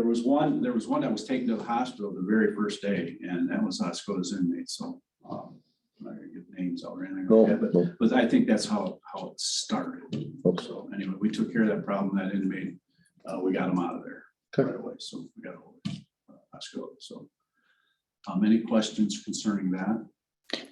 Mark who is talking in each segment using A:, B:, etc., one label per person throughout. A: was one, there was one that was taken to the hospital the very first day, and that was Osco's inmate, so. um, I'm not gonna get names out or anything
B: No,
A: like that, but,
B: no.
A: but I think that's how, how it started.
B: Okay.
A: So anyway, we took care of that problem, that inmate, uh, we got him out of there
B: Okay.
A: right away, so we got hold of uh, Osco, so. Um, any questions concerning that?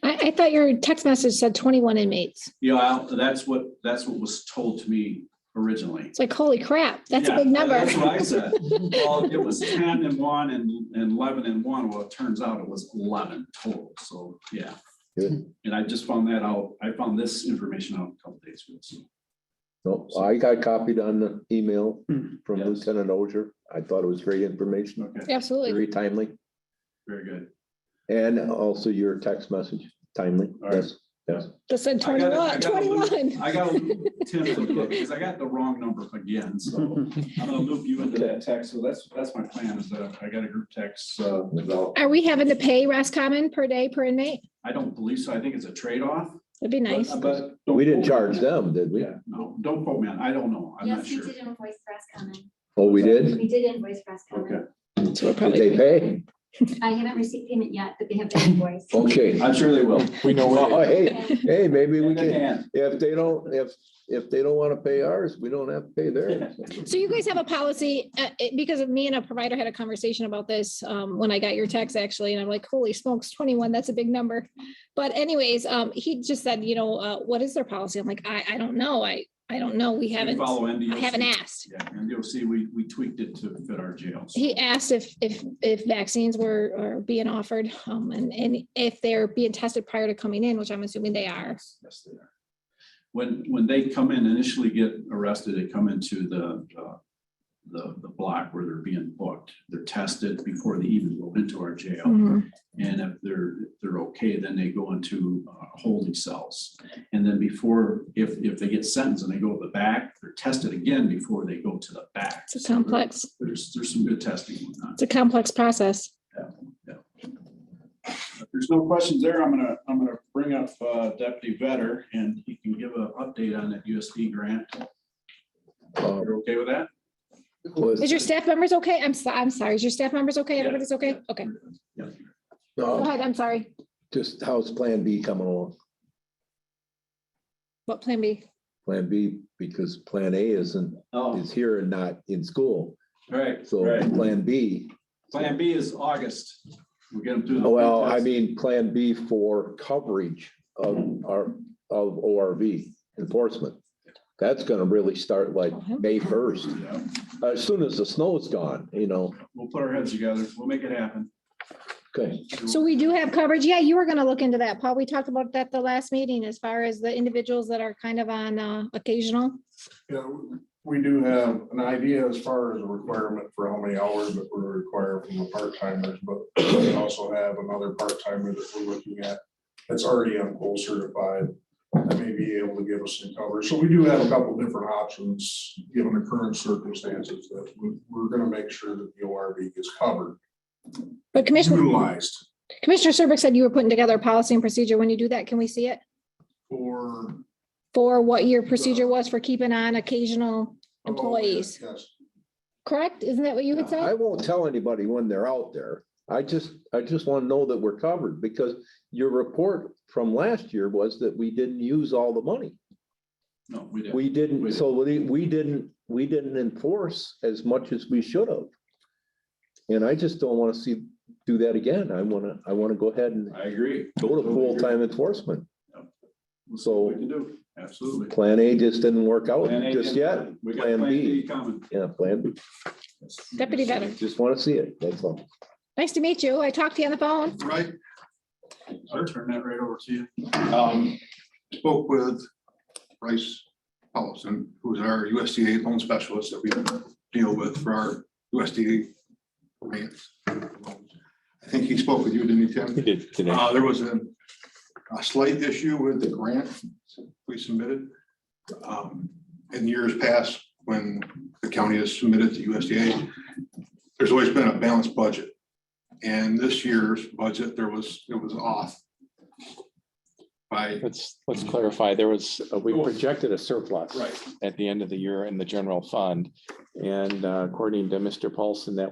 C: I, I thought your text message said twenty-one inmates.
A: Yeah, I'll- that's what, that's what was told to me originally.
C: It's like, holy crap, that's a
A: Yeah,
C: big number.
A: That's what I said. Well, it was ten and one and, and eleven and one. Well, it turns out it was eleven total. So, yeah.
B: Good.
A: And I just found that out. I found this information out a couple days ago. so.
B: No, I got copied on the email from
A: Yes.
B: Lieutenant Oger. I thought it was great information,
A: Okay,
C: Absolutely.
B: very timely,
A: very good.
B: and also your text message timely.
A: right.
B: Yes, yes.
C: Just said
A: I gotta- I
C: 21.
A: gotta loop-
C: 21.
A: I got Tim's book because I got the wrong number again. So I'm gonna loop you into that text. So that's, that's my plan is that I got a group text uh, developed.
C: Are we having to pay Roscommon per day per inmate?
A: I don't believe so. I think it's a trade-off.
C: That'd be
A: but-
C: nice.
A: But. don't
B: We
A: quote me on
B: didn't charge
A: that.
B: them, did we?
A: Yeah, no, don't quote me on, I don't know. I'm not
D: Yes, we
A: sure.
D: did invoice Roscommon.
B: Oh, we did?
D: We did invoice Roscommon.
A: Okay,
C: So we're
B: Did
C: probably-
B: they pay?
D: I haven't received payment yet, but they have been invoiced.
B: Okay.
A: I'm sure they will.
B: We know. Oh, hey,
D: And
B: hey, maybe we can,
A: And
B: if they don't, if, if they don't want to pay ours, we don't have to pay theirs.
C: So you guys have a policy, uh, it- because of me and a provider had a conversation about this, um, when I got your text actually, and I'm like, holy smokes, twenty-one, that's a big number. But anyways, um, he just said, you know, uh, what is their policy? I'm like, I, I don't know. I, I don't know. We
A: we
C: haven't,
A: follow NDOC.
C: I haven't asked.
A: Yeah, NDOC, we, we tweaked it to fit our jails.
C: he asked if, if, if vaccines were, are being offered, um, and, and if they're being tested prior to coming in, which I'm assuming they are.
A: Yes, they are. When, when they come in initially get arrested, they come into the, uh, the, the block where they're being booked. They're tested before they even go into our
C: Mm-hmm.
A: jail. And if they're, if they're okay, then they go into uh, holding cells. And then before, if, if they get sentenced and they go to the back, they're tested again before they go to the back.
C: It's a
A: So there-
C: complex,
A: There's, there's some good testing going on.
C: it's a complex process.
A: If there's no questions there, I'm gonna, I'm gonna bring up uh, Deputy Vetter and he can give an update on that USD grant.
B: Uh,
A: You're okay with that?
B: was-
C: Is your staff members okay? I'm, so- I'm sorry. Is your staff members okay?
A: Yeah,
C: Everybody's okay?
A: yeah.
C: Okay,
A: Yeah.
C: go
B: uh,
C: ahead. I'm sorry.
B: Just how's Plan B coming along?
C: What plan B?
B: Plan B, because Plan A isn't,
A: Oh,
B: is here and not in school.
A: right,
B: So
A: right.
B: Plan B
A: Plan B is August. We'll get them through. the
B: Oh, Well, I
A: test.
B: mean, Plan B for coverage of our, of ORV enforcement. That's gonna really start like May first,
A: Yeah,
B: as soon as the snow is gone, you know,
A: We'll put our heads together. We'll make it happen.
B: okay,
C: So we do have coverage. Yeah, you were gonna look into that, Paul. We talked about that the last meeting as far as the individuals that are kind of on, uh, occasional.
E: Yeah, we do have an idea as far as a requirement for how many hours that we're required from the part timers, but we also have another part timer that we're looking at. That's already on pole certified, that may be able to give us some coverage. So we do have a couple different options, given the current circumstances, that we, we're gonna make sure that the ORV gets covered,
C: But Commissioner,
E: utilized
C: Commissioner Serbrook said you were putting together a policy and procedure. When you do that, can we see it?
E: for.
C: For what your procedure was for keeping on occasional employees,
E: Yes,
C: correct? Isn't that what you had
B: Uh, I
C: said?
B: won't tell anybody when they're out there. I just, I just wanna know that we're covered, because your report from last year was that we didn't use all the money.
A: No, we did.
B: We
A: We
B: didn't,
A: did.
B: so we, we didn't, we didn't enforce as much as we should have. And I just don't want to see, do that again. I want to, I want to go ahead and
A: I agree.
B: go to full-time enforcement.
A: We'll see
B: So-
A: what We can do, absolutely.
B: Plan A just didn't work out
A: Plan A
B: just
A: didn't-
B: yet.
A: We got
B: Plan
A: Plan
B: B.
A: B coming.
B: Yeah, Plan B.
C: Deputy Vetter,
B: Just want to see it. That's all.
C: nice to meet you. I talked to you on the phone.
F: Right,
A: I'll turn that right over to you.
F: um, spoke with Bryce Paulson, who's our USDA loan specialist that we have to deal with for our USDA grants. I think he spoke with you, didn't he, Tim? He did today. Uh, there was a, a slight issue with the grant we submitted. Um, in years past, when the county has submitted to USDA, there's always been a balanced budget. And this year's budget, there was, it was off by
G: Let's, let's clarify, there was, uh, we projected a surplus
F: Right.
G: at the end of the year in the general fund. And uh, according to Mr. Paulson, that